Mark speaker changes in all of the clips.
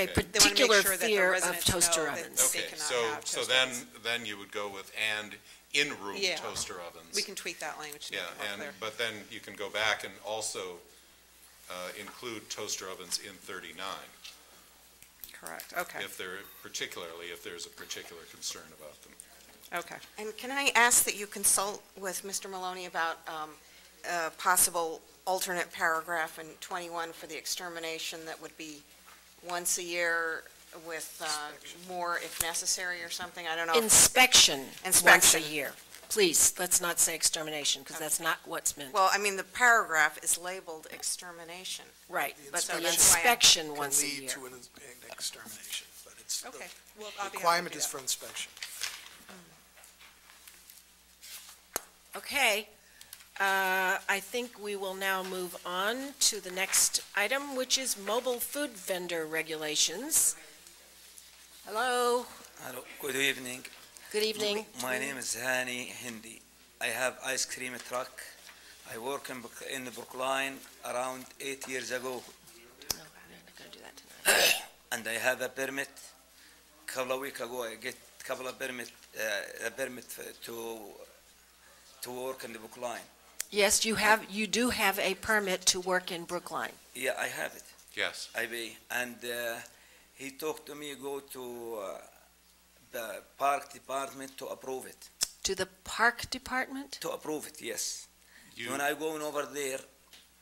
Speaker 1: a They wanna
Speaker 2: Okay.
Speaker 1: make
Speaker 3: particular
Speaker 1: sure that the
Speaker 3: fear of
Speaker 1: residents
Speaker 3: toaster
Speaker 1: know that
Speaker 3: ovens.
Speaker 1: they
Speaker 2: Okay,
Speaker 1: cannot
Speaker 2: so,
Speaker 1: have
Speaker 2: so
Speaker 1: toaster
Speaker 2: then,
Speaker 1: ovens.
Speaker 2: then you would go with and in-room
Speaker 1: Yeah.
Speaker 2: toaster ovens.
Speaker 1: We can tweak that language to
Speaker 2: Yeah,
Speaker 1: make it more
Speaker 2: and,
Speaker 1: clear.
Speaker 2: but then you can go back and also uh, include toaster ovens in thirty-nine,
Speaker 1: Correct, okay,
Speaker 2: if there, particularly if there's a particular concern about them.
Speaker 1: okay.
Speaker 4: And can I ask that you consult with Mr. Maloney about um, a possible alternate paragraph in 21 for the extermination that would be once a year with uh, more if necessary or something? I don't know. if-
Speaker 3: Inspection once a
Speaker 4: Inspection.
Speaker 3: year. Please, let's not say extermination, because that's not what's meant.
Speaker 4: Well, I mean, the paragraph is labeled extermination.
Speaker 3: Right,
Speaker 5: the
Speaker 3: but the inspection
Speaker 4: inspection
Speaker 5: Can
Speaker 3: once a
Speaker 5: lead
Speaker 3: year.
Speaker 5: to an ins- an extermination, but it's,
Speaker 1: Okay,
Speaker 5: the
Speaker 1: well, I'll be happy to
Speaker 5: requirement
Speaker 1: do
Speaker 5: is
Speaker 1: that.
Speaker 5: for inspection.
Speaker 3: Okay, uh, I think we will now move on to the next item, which is mobile food vendor regulations. Hello,
Speaker 6: Hello, good evening.
Speaker 3: good evening.
Speaker 6: My name is Hani Hindi. I have ice cream truck. I work in, Brook- in Brookline around eight years ago,
Speaker 3: No, we're not Oh, gonna do that tonight.
Speaker 6: and I have a permit. Couple of week ago, I get couple of permit, uh, a permit f- to to work in the Brookline.
Speaker 3: Yes, you have, you do have a permit to work in Brookline.
Speaker 6: Yeah, I have it.
Speaker 2: Yes.
Speaker 6: I be, and uh, he talked to me go to uh, the park department to approve it.
Speaker 3: To the park department?
Speaker 6: To approve it, yes.
Speaker 2: You,
Speaker 6: When I going over there,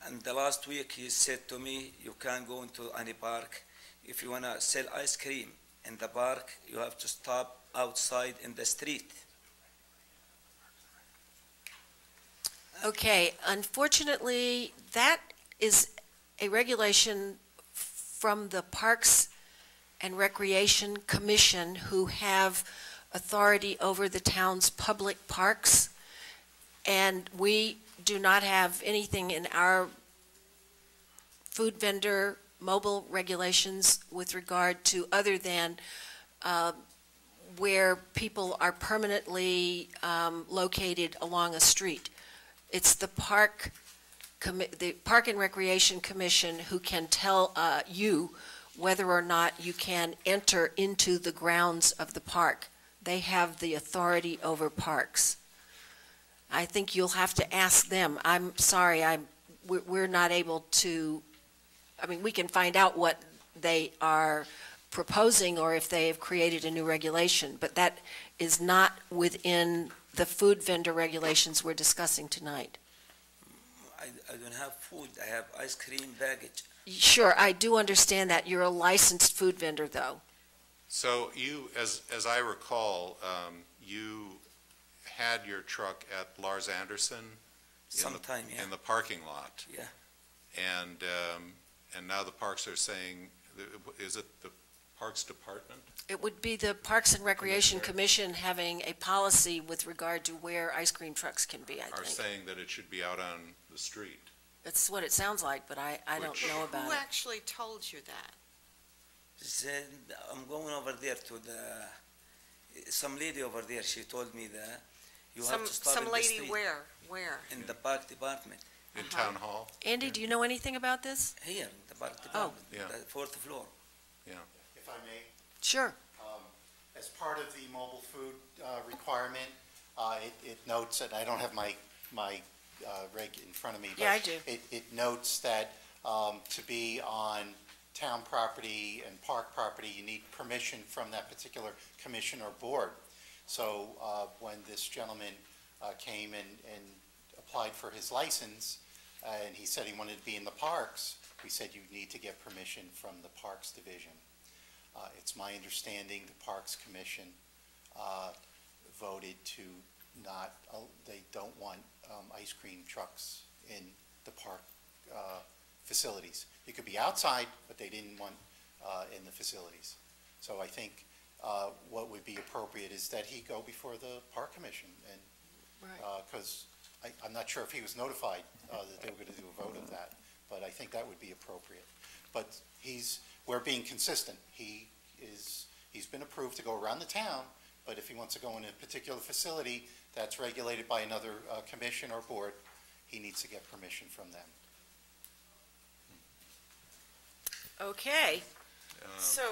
Speaker 6: and the last week he said to me, you can't go into any park. If you wanna sell ice cream in the park, you have to stop outside in the street.
Speaker 3: Okay, unfortunately, that is a regulation from the Parks and Recreation Commission, who have authority over the town's public parks, and we do not have anything in our food vendor mobile regulations with regard to, other than uh, where people are permanently um, located along a street. It's the park, commi- the Park and Recreation Commission who can tell uh, you whether or not you can enter into the grounds of the park. They have the authority over parks. I think you'll have to ask them. I'm sorry, I'm, we're- we're not able to, I mean, we can find out what they are proposing or if they have created a new regulation, but that is not within the food vendor regulations we're discussing tonight.
Speaker 6: I, I don't have food, I have ice cream package.
Speaker 3: Sure, I do understand that. You're a licensed food vendor, though.
Speaker 2: so you, as, as I recall, um, you had your truck at Lars Anderson? in the-
Speaker 6: Sometime, yeah.
Speaker 2: In the parking lot?
Speaker 6: Yeah.
Speaker 2: And, um, and now the parks are saying, is it the Parks Department?
Speaker 3: It would be the Parks and Recreation
Speaker 2: Commissioner.
Speaker 3: Commission having a policy with regard to where ice cream trucks can be, I
Speaker 2: Are
Speaker 3: think.
Speaker 2: saying that it should be out on the street?
Speaker 3: That's what it sounds like, but I, I don't
Speaker 2: Which-
Speaker 3: know about
Speaker 4: Who
Speaker 3: it.
Speaker 4: actually told you that?
Speaker 6: Then I'm going over there to the, some lady over there, she told me that you have
Speaker 4: Some,
Speaker 6: to stop in
Speaker 4: some
Speaker 6: the
Speaker 4: lady
Speaker 6: street.
Speaker 4: where, where?
Speaker 6: In the park department,
Speaker 2: In Town Hall?
Speaker 3: Andy, do you know anything about this?
Speaker 6: here, in the
Speaker 4: Oh.
Speaker 6: park department,
Speaker 2: Yeah.
Speaker 6: the fourth floor.
Speaker 7: If I may,
Speaker 3: Sure.
Speaker 7: um, as part of the mobile food uh, requirement, uh, it- it notes, and I don't have my, my uh, reg in front of me. but
Speaker 3: Yeah, I do.
Speaker 7: It, it notes that um, to be on town property and park property, you need permission from that particular commission or board. So uh, when this gentleman uh, came and, and applied for his license, uh, and he said he wanted to be in the parks, we said you need to get permission from the Parks Division. Uh, It's my understanding the Parks Commission uh, voted to not, uh, they don't want um, ice cream trucks in the park uh, facilities. You could be outside, but they didn't want uh, in the facilities. So I think uh, what would be appropriate is that he go before the Park Commission and, because I'm not sure if he was notified uh, that they were going to do a vote of that, but I think that would be appropriate. But he's, we're being consistent. He is, he's been approved to go around the town, but if he wants to go in a particular facility that's regulated by another uh, commission or board, he needs to get permission from them.
Speaker 3: Okay.
Speaker 2: Um,
Speaker 1: So